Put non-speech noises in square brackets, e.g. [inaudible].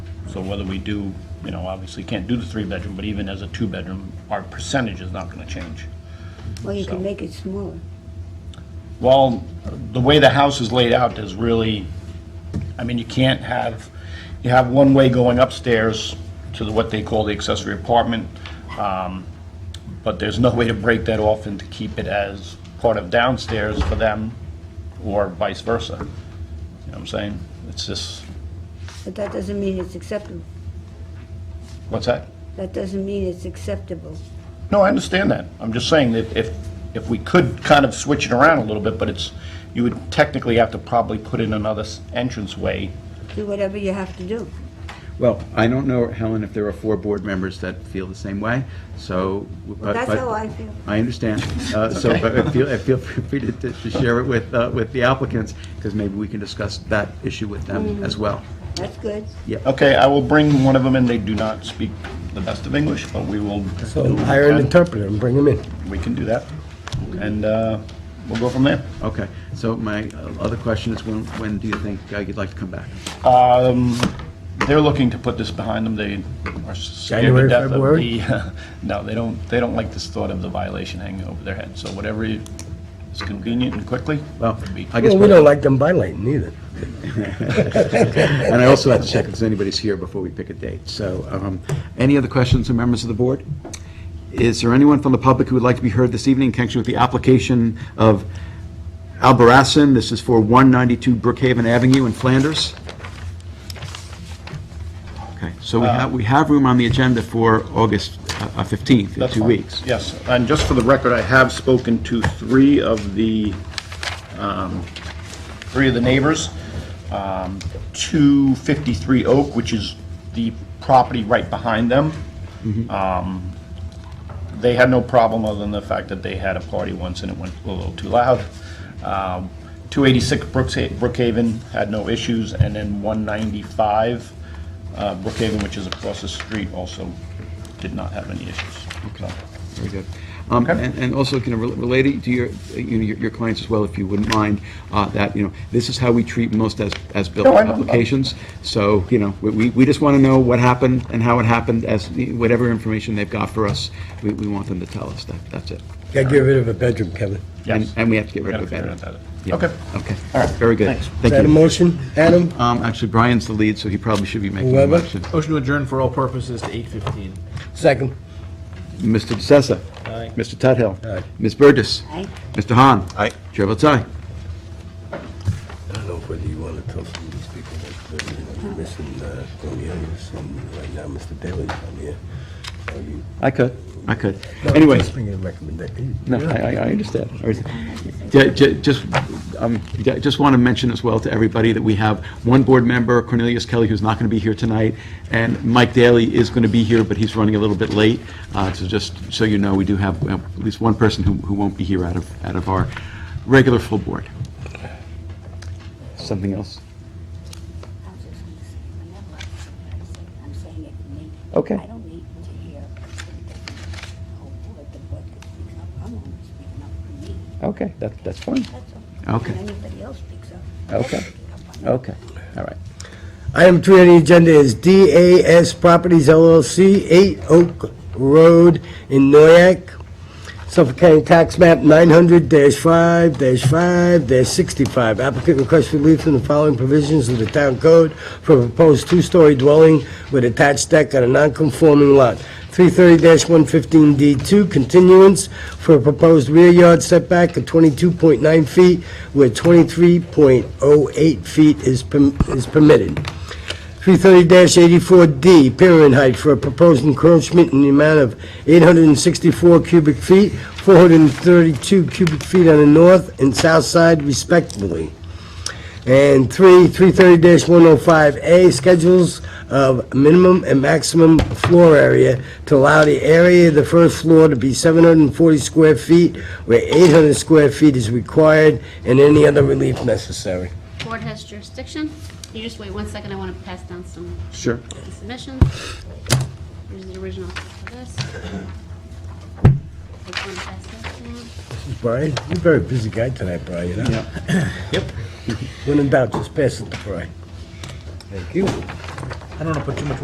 So whether we do, you know, obviously can't do the three-bedroom, but even as a two-bedroom, our percentage is not gonna change. Well, you So- can make it smaller. Well, the way the house is laid out is really, I mean, you can't have, you have one way going upstairs to the- what they call the accessory apartment, um, but there's no way to break that off and to keep it as part of downstairs for them, or vice versa. You know what I'm saying? It's just, But that doesn't mean it's acceptable. what's that? That doesn't mean it's acceptable. No, I understand that. I'm just saying that if, if we could kind of switch it around a little bit, but it's, you would technically have to probably put in another s- entranceway Do whatever you have to do. Well, I don't know, Helen, if there are four board members that feel the same way, so. but- That's but- how I feel. I understand. [laughs] Uh, So but I feel, I feel [laughs] free to, to to share it with, uh, with the applicants, because maybe we can discuss that issue with Mm-hmm. them as well. That's good. Okay, I will bring one of them in. They do not speak the best of English, but we will. So hire an interpreter and bring them in. We can do that. And uh, we'll go from there. Okay, so my uh, other question is, when, when do you think uh, you'd like to come back? Um, They're looking to put this behind them. They are scared to January, death of February? the, [laughs] no, they don't, they don't like this thought of the violation hanging over their head. So whatever is convenient and quickly. Well, would be- I guess, Well, we don't like them violating either. and I also have to check if anybody's here before we pick a date. So, um, any other questions from members of the board? Is there anyone from the public who would like to be heard this evening in connection with the application of Albarazin? This is for 192 Brookhaven Avenue in Flanders. Okay, so we Uh, have, we have room on the agenda for August uh, 15th, in That's two fine. weeks. Yes, and just for the record, I have spoken to three of the, um, three of the neighbors. Um, 253 Oak, which is the property right behind them. Um, They had no problem other than the fact that they had a party once and it went a little too loud. Um, 286 Brooks- Brookhaven had no issues, and then 195 uh, Brookhaven, which is across the street, also did not have any issues. So- Very good. Um, Okay. And and also, kind of rel- related to your, uh, you know, your your clients as well, if you wouldn't mind, uh, that, you know, this is how we treat most as, as built No, I know. applications. So, you know, we- we, we just want to know what happened and how it happened, as, the- whatever information they've got for us, we, we want them to tell us. That, that's it. Gotta get rid of a bedroom, Kevin. And- Yes. And we have to get rid Gotta of figure out that. that. Yeah. Okay. Okay. All right. Very good. Thanks. Is Thank that a you. motion, Adam? Um, Actually, Brian's the lead, so he probably should be making the Whoever. motion. Motion to adjourn for all purposes to eight fifteen. Second. Mr. DeSenza. Aye. Mr. Tudhill. Aye. Ms. Burgess. Aye. Mr. Hahn. Aye. Chair votes aye. I don't know whether you want to tell some of these people that uh, they're they're missing uh, Cornelius and right now Mr. Daley's on here. So you- I could, I could. Anyway, Just bring in a recommendation. no, I, I- I understand. I understand. Ju- ju- Just, um, ju- just want to mention as well to everybody that we have one board member, Cornelius Kelly, who's not going to be here tonight, and Mike Daly is going to be here, but he's running a little bit late. Uh, So just so you know, we do have uh, at least one person who, who won't be here out of, out of our regular full board. Something else? I'm just gonna say, remember, I'm saying- I'm saying it for me. Okay. I don't need to hear the whole board, the board could speak up, I'm only speaking up for me, Okay, that, that's fine. that's all. Okay. When anybody else speaks up. they Okay. speak up on it. Okay, all right. Item three on the agenda is DAS Properties LLC, 8 Oak Road in Noyak, Suffolk County Tax Map 900-5-5-65. Applicant requests relief from the following provisions of the town code for a proposed two-story dwelling with attached deck on a non-conforming lot. 330-115D2, continuance for a proposed rear yard setback of 22.9 feet where 23.08 feet is perm- is permitted. 330-84D, piering height for a proposed encroachment in the amount of 864 cubic feet, 432 cubic feet on the north and south side respectively. And three, 330-105A, schedules of minimum and maximum floor area to allow the area of the first floor to be 740 square feet, where 800 square feet is required, and any other relief necessary. board has jurisdiction. You just wait one second, I want to pass down some Sure. submissions. Here's the original for this. Just wanna pass that down. Brian, you're a very busy guy tonight, Brian. Yep. [laughs] When in doubt, just pass it to Brian. Thank you. I don't want to put too much